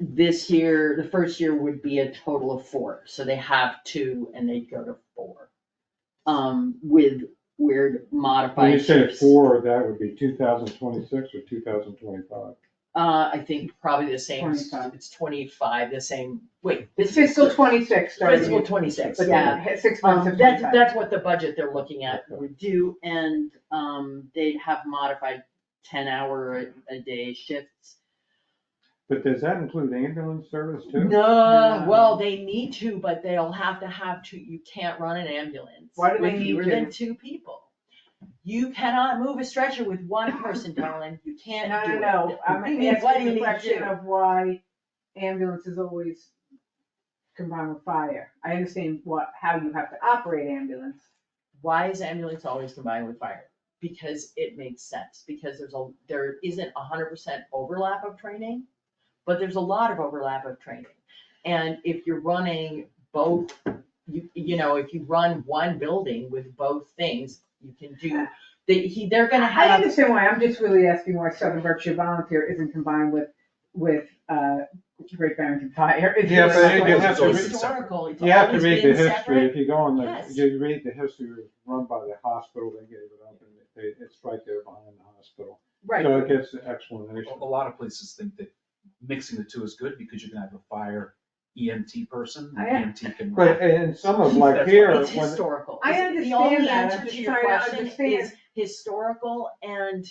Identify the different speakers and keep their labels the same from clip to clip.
Speaker 1: this year, the first year would be a total of four, so they have two and they go to four. Um, with weird modified
Speaker 2: When you say
Speaker 1: shifts.
Speaker 2: four, that would be two thousand twenty-six or two thousand twenty-five?
Speaker 1: Uh, I think probably the same,
Speaker 3: 25.
Speaker 1: it's twenty-five, the same, wait, this
Speaker 3: It's
Speaker 1: is.
Speaker 3: fiscal twenty-six
Speaker 1: Fiscal
Speaker 3: starting,
Speaker 1: twenty-six,
Speaker 3: but
Speaker 1: yeah.
Speaker 3: yeah, ha- six months
Speaker 1: Um,
Speaker 3: of
Speaker 1: that's,
Speaker 3: twenty-five.
Speaker 1: that's what the budget they're looking at would do, and, um, they'd have modified ten hour a, a day shifts.
Speaker 2: But does that include ambulance service too?
Speaker 1: No,
Speaker 3: No.
Speaker 1: well, they need to, but they'll have to have two, you can't run an ambulance
Speaker 3: Why do they
Speaker 1: with
Speaker 3: need
Speaker 1: fewer than
Speaker 3: to?
Speaker 1: two people. You cannot move a stretcher with one person, darling, you can't
Speaker 3: No,
Speaker 1: do it.
Speaker 3: no, no, I'm
Speaker 1: What do you need
Speaker 3: asking
Speaker 1: to
Speaker 3: the question
Speaker 1: do?
Speaker 3: of why ambulance is always combined with fire. I understand what, how you have to operate ambulance.
Speaker 1: why is ambulance always combined with fire? Because it makes sense, because there's a, there isn't a hundred percent overlap of training, but there's a lot of overlap of training. And if you're running both, you, you know, if you run one building with both things, you can do, they, he, they're gonna
Speaker 3: I
Speaker 1: have,
Speaker 3: understand why, I'm just really asking why Southern Berkshire Volunteer isn't combined with, with, uh, Great Barrington Fire. It's
Speaker 2: Yeah,
Speaker 3: really
Speaker 2: but
Speaker 3: not
Speaker 2: you
Speaker 3: what it
Speaker 2: have
Speaker 3: is.
Speaker 2: to read-
Speaker 1: historical, it's
Speaker 2: You have to
Speaker 1: always
Speaker 2: read the
Speaker 1: been
Speaker 2: history,
Speaker 1: separate.
Speaker 2: if you go on the,
Speaker 1: Yes.
Speaker 2: you read the history, it was run by the hospital, they gave it up, and it, it's right there behind the hospital.
Speaker 3: Right,
Speaker 2: So it gets the
Speaker 4: A
Speaker 2: explanation.
Speaker 4: a lot of places think that mixing the two is good because you can have a fire EMT person,
Speaker 3: I am-
Speaker 4: and EMT can.
Speaker 2: But, and some of like
Speaker 4: That's
Speaker 2: here,
Speaker 1: It's
Speaker 2: when,
Speaker 1: historical.
Speaker 3: I
Speaker 1: The only
Speaker 3: understand that, I'm
Speaker 1: answer to
Speaker 3: just
Speaker 1: your
Speaker 3: trying to
Speaker 1: question is
Speaker 3: understand.
Speaker 1: historical and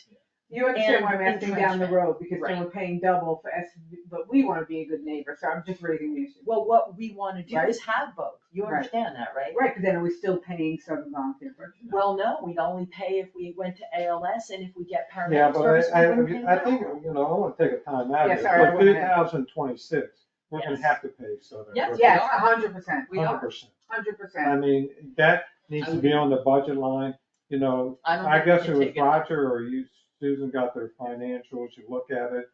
Speaker 3: You understand why I'm
Speaker 1: and
Speaker 3: asking down the
Speaker 1: entrenchment.
Speaker 3: road, because then
Speaker 1: Right.
Speaker 3: we're paying double for S, but we wanna be a good neighbor, so I'm just raising the issue.
Speaker 1: Well, what we wanna do
Speaker 3: Right.
Speaker 1: is have both, you
Speaker 3: Right.
Speaker 1: understand that, right?
Speaker 3: Right, but then are we still paying Southern Volunteer Berkshire?
Speaker 1: Well, no, we'd only pay if we went to ALS and if we get
Speaker 2: yeah,
Speaker 1: paramedic
Speaker 2: but
Speaker 1: service, we
Speaker 2: I,
Speaker 1: wouldn't pay
Speaker 2: I, I
Speaker 1: that.
Speaker 2: think, you know, I wanna take a time out
Speaker 3: Yeah,
Speaker 2: of it,
Speaker 3: sorry, I
Speaker 2: but
Speaker 3: went
Speaker 2: two
Speaker 3: ahead.
Speaker 2: thousand twenty-six, we're gonna
Speaker 1: Yes.
Speaker 2: have to pay Southern.
Speaker 1: Yes,
Speaker 2: Berkshire.
Speaker 3: Yes,
Speaker 1: are.
Speaker 3: a hundred percent,
Speaker 1: We are.
Speaker 2: Hundred percent.
Speaker 3: hundred
Speaker 2: I
Speaker 3: percent.
Speaker 2: mean, that needs to be on the budget line, you know,
Speaker 1: I don't
Speaker 2: I
Speaker 1: think we
Speaker 2: guess
Speaker 1: can
Speaker 2: it was
Speaker 1: take
Speaker 2: Roger or you, Susan got their financials, you look at it,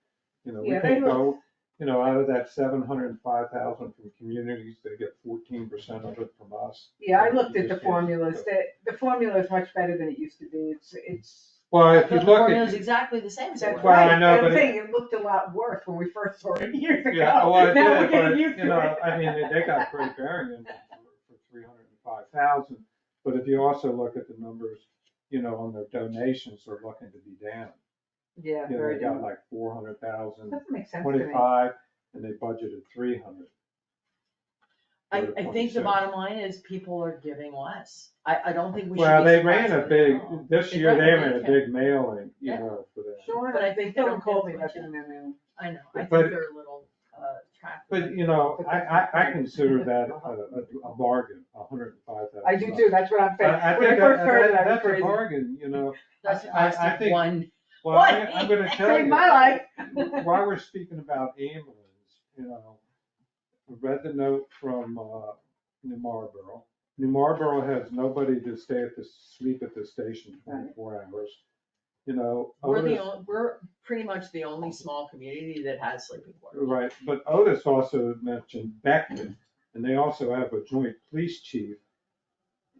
Speaker 2: you know, we
Speaker 3: Yeah, they
Speaker 2: can go, you know, out of that seven hundred and five thousand from communities, they get fourteen percent of it from us.
Speaker 3: Yeah, I looked at the formulas, the, the formula is much better than it used to be, it's, it's.
Speaker 2: Well,
Speaker 1: But
Speaker 2: if you
Speaker 1: the
Speaker 2: look
Speaker 1: formula is
Speaker 2: at,
Speaker 1: exactly the same as it
Speaker 3: That's
Speaker 2: Well,
Speaker 1: was.
Speaker 2: I
Speaker 3: right,
Speaker 2: know,
Speaker 3: but
Speaker 2: but
Speaker 3: I'm
Speaker 2: it-
Speaker 3: saying it looked a lot worse when we first saw it years ago.
Speaker 2: yeah, well, it
Speaker 3: Now we're
Speaker 2: did, but,
Speaker 3: getting used
Speaker 2: you
Speaker 3: to
Speaker 2: know,
Speaker 3: it.
Speaker 2: I mean, they- they got great variance for three hundred and five thousand. But if you also look at the numbers, you know, on their donations, they're looking to be down.
Speaker 3: Yeah,
Speaker 2: You know,
Speaker 3: very
Speaker 2: they got
Speaker 3: different.
Speaker 2: like four hundred thousand,
Speaker 3: Doesn't make sense to me.
Speaker 2: twenty-five, and they budgeted three hundred.
Speaker 1: I, I think the bottom line is people are giving less. I, I don't think we should be
Speaker 2: Well, they ran a
Speaker 1: surprised by
Speaker 2: big,
Speaker 1: that.
Speaker 2: this
Speaker 1: They
Speaker 2: year, they
Speaker 1: ran a
Speaker 2: ran a
Speaker 1: big
Speaker 2: big mailing, you
Speaker 1: Yeah.
Speaker 2: know, for that.
Speaker 3: Sure,
Speaker 1: But I
Speaker 3: they
Speaker 1: think
Speaker 3: still
Speaker 1: they
Speaker 3: don't
Speaker 1: don't
Speaker 3: call me
Speaker 1: get
Speaker 3: that
Speaker 1: much of
Speaker 3: in their mail.
Speaker 1: I know, I think
Speaker 2: But-
Speaker 1: they're a little, uh, trapped.
Speaker 2: But, you know, I, I, I consider that a, a- a bargain, a hundred and five thousand.
Speaker 3: I do too, that's what I'm saying.
Speaker 2: I, I
Speaker 3: When I
Speaker 2: think
Speaker 3: first
Speaker 2: that,
Speaker 3: heard it, I
Speaker 2: that-
Speaker 3: was
Speaker 2: that's a
Speaker 3: crazy.
Speaker 2: bargain, you know,
Speaker 1: That's the
Speaker 2: I- I-
Speaker 1: cost
Speaker 2: I
Speaker 1: of
Speaker 2: think-
Speaker 1: one.
Speaker 2: well, I,
Speaker 1: What?
Speaker 2: I'm gonna tell
Speaker 3: Saved
Speaker 2: you.
Speaker 3: my life.
Speaker 2: While we're speaking about ambulance, you know, I read the note from, uh, New Marlboro. New Marlboro has nobody to stay at the, sleep at the station twenty-four hours, you know.
Speaker 1: We're the,
Speaker 2: Otis-
Speaker 1: on- we're pretty much the only small community that has sleeping quarters.
Speaker 2: Right, but Otis also mentioned Beckman, and they also have a joint police chief.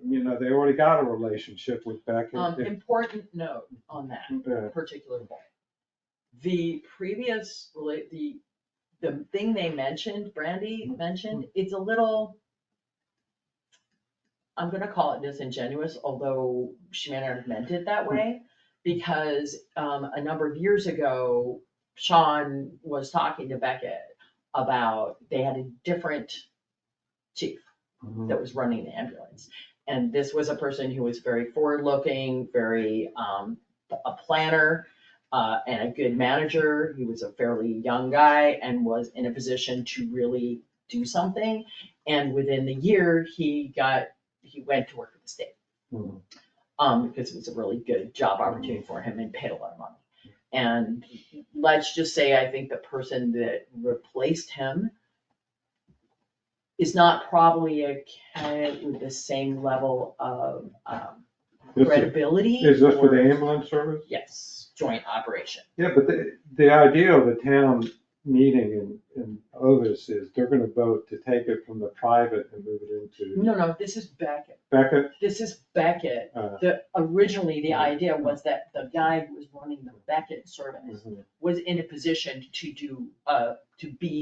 Speaker 2: You know, they already got a relationship with
Speaker 1: Um,
Speaker 2: Beckman.
Speaker 1: important note on that.
Speaker 2: Uh,
Speaker 1: particular one. The previous, rela- the, the thing they mentioned, Brandy mentioned, it's a little, I'm gonna call it disingenuous, although she may not have meant it that way, because, um, a number of years ago, Sean was talking to Beckett about, they had a different chief that was running the ambulance. And this was a person who was very forward-looking, very, um, a planner, uh, and a good manager. He was a fairly young guy and was in a position to really do something. And within the year, he got, he went to work for the state
Speaker 2: mhm.
Speaker 1: um, because it was a really good job
Speaker 2: Mm-hmm.
Speaker 1: opportunity for him and paid a lot of money. And let's just say, I think the person that replaced him is not probably a candidate with the same level of um,
Speaker 2: This Is
Speaker 1: credibility.
Speaker 2: is this for
Speaker 1: or-
Speaker 2: the ambulance service?
Speaker 1: Yes, joint operation.
Speaker 2: Yeah, but the, the idea of the town meeting in, in Otis is they're gonna vote to take it from the private and move it into
Speaker 1: No, no, this is Beckett.
Speaker 2: Beckett.
Speaker 1: This is Beckett.
Speaker 2: uh,
Speaker 1: The, originally,
Speaker 2: Mm-hmm.
Speaker 1: the idea was that the
Speaker 2: Mm-hmm.
Speaker 1: guy who was running the Beckett service
Speaker 2: mhm.
Speaker 1: was in a position to do, uh, to be